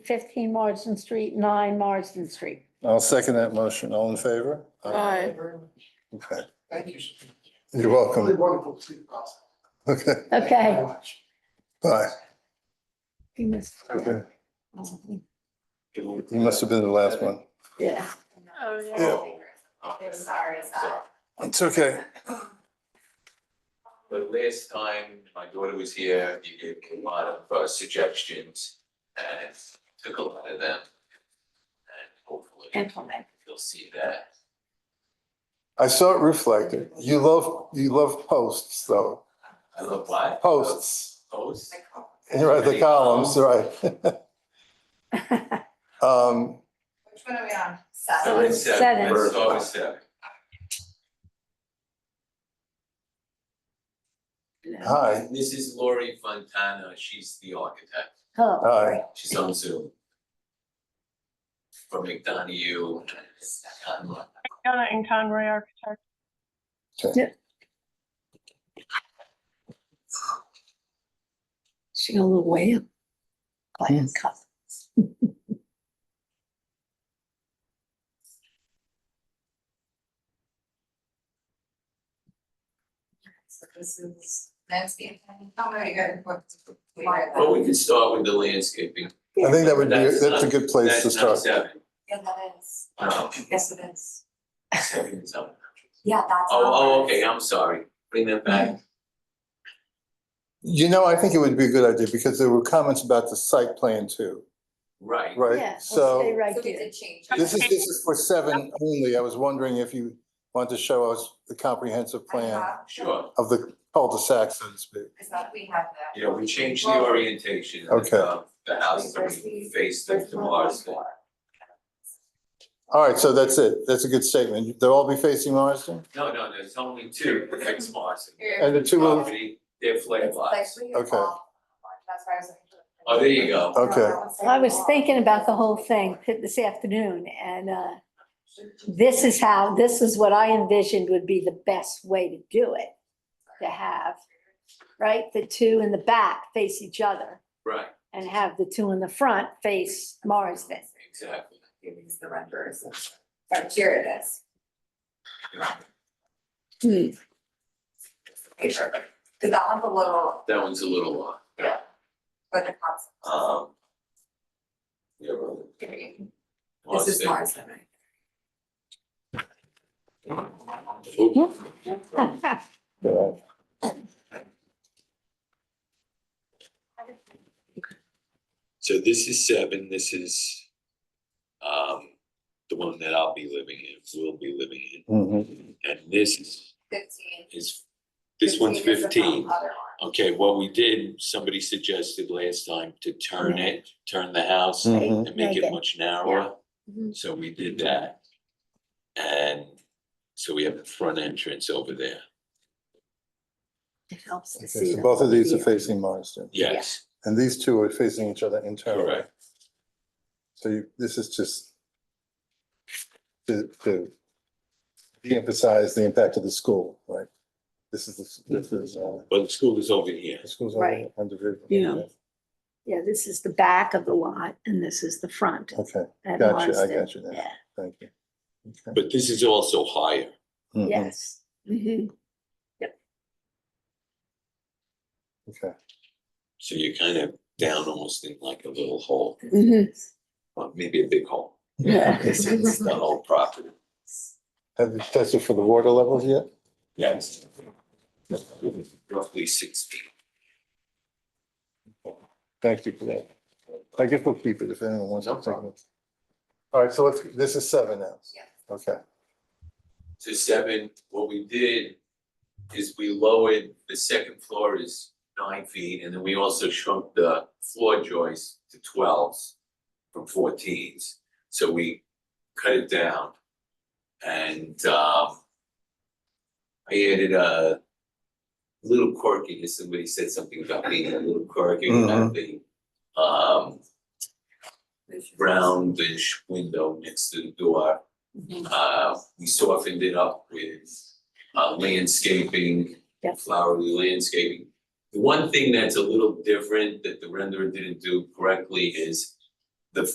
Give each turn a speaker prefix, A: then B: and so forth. A: 15 Marsden Street, 9 Marsden Street.
B: I'll second that motion. All in favor?
C: Aye.
D: Very much.
B: Okay.
D: Thank you.
B: You're welcome.
D: Really wonderful to see you, Ross.
B: Okay,
D: Thank you
A: Okay.
D: very much.
B: bye.
A: You missed-
B: Okay. You must have been the last one.
A: Yeah.
C: Oh,
B: Yeah.
E: I'm sorry, it's not.
B: It's okay.
E: But last time my daughter was here, you gave me a lot of uh, suggestions and took a lot of them. And hopefully
A: Implement.
E: you'll see that.
B: I saw it reflected. You love, you love posts though,
E: I love what?
B: posts,
E: Posts.
B: right, the columns, right? Um,
E: Which one are we on?
A: So Seven.
E: We're in
A: it's
E: seven,
A: seven.
E: we're always seven.
B: hi,
E: And This is Lori Fontana, she's the architect,
A: Oh,
B: hi.
E: she's on Zoom. From McDonough and Conroe.
C: Donna and Conroy Architect.
A: she got a little way up. By a cup.
F: So this is landscape planning, oh, no, you got it, what? we got
E: Well,
F: that.
E: we can start with the landscaping.
B: I think that would be, that's a good place to
E: That's
B: start.
E: not seven.
F: Yeah, that is,
E: No,
F: yes, it is,
E: seven is up.
F: yeah, that's.
E: Oh, oh,
F: ours.
E: okay, I'm sorry, bring that back.
B: You know, I think it would be a good idea because there were comments about the site plan too,
F: Mm-hmm.
E: Right,
A: Yeah, we'll
B: right?
A: Stay
B: So
A: right
F: So we
A: there.
F: did change.
B: this
F: it.
B: is, this is for seven only. I was wondering if you want to show us the comprehensive
F: I
B: plan
F: have-
E: sure,
B: of the cul-de-sac, so to speak.
F: It's not, we have that.
E: yeah, we changed the orientation of
B: Okay.
E: uh, the house, so we faced them
F: There's
E: to
F: one
E: Marsden.
F: more.
B: All right, so that's it. That's a good statement. They'll all be facing Marsden?
E: No, no, there's only two, fix Marsden.
F: Here,
B: And the two will,
E: Property, they're flag
F: it's like
E: lots.
F: we
B: Okay.
F: all- That's why I was like.
E: Oh, there you go.
F: No,
B: Okay.
F: that one's like
A: I was
F: all.
A: thinking about the whole thing this afternoon and uh, this is how, this is what I envisioned would be the best way to do it. To have, right, the two in the back face each other
E: Right,
A: and have the two in the front face Marsden.
E: exactly.
F: Here, these are the renders, or here it is,
A: Hmm.
F: Here. 'Cause that one's a little,
E: That one's a little long.
F: Yeah. but the concept.
E: Um. Yeah, well,
F: here you can- This is
E: Marsden.
F: Marsden, right?
E: Oop, So this is seven, this is um the one that I'll be living in, will be living in.
B: Mhm.
E: And this is,
F: Fifteen.
E: is, this one's
F: is the
E: fifteen.
F: other one.
E: Okay, what we did, somebody suggested last time to turn it, turn the house
B: Mhm.
E: and Mm-hmm. make
A: Make it,
E: it Mm-hmm. much narrower.
A: Mhm.
E: So we did that. And so we have the front entrance over there,
A: It helps to
B: Okay,
A: see.
B: so both of these are
A: them.
B: facing Marsden.
E: yes,
B: And these two are facing each other internally.
E: Correct.
B: So you, this is just to, to de-emphasize the impact of the school, right? This is, the- this is, uh,
E: but the school is over here.
B: the school's
A: Right.
B: under review.
A: Yeah. Yeah, this is the back of the lot and this is the front
B: Okay,
A: at
B: gotcha, I
A: Marsden.
B: got you now,
A: Yeah,
B: thank you. Okay.
E: But this is also higher.
B: Mhm.
A: yes. Mhm.
B: Okay,
E: So you're kind of down almost in like a little hole,
A: Mhm.
E: or maybe a big hole.
A: Yeah.
E: It's, it's the whole property.
B: have you tested for the water levels yet?
E: Yes. Roughly six feet.
B: Thank you for that. I guess we'll keep it if anyone wants to take it. All right, so let's, this is seven now,
F: Yes.
B: okay.
E: to seven, what we did is we lowered, the second floor is nine feet, and then we also shrunk the floor joists to twelves from fourteens, so we cut it down. And um I added a little quirkiness, somebody said something about being a little quirky, about the um roundish window next to the door. Uh, we softened it up with uh landscaping,
A: Yep.
E: flowery landscaping. The one thing that's a little different that the renderer didn't do correctly is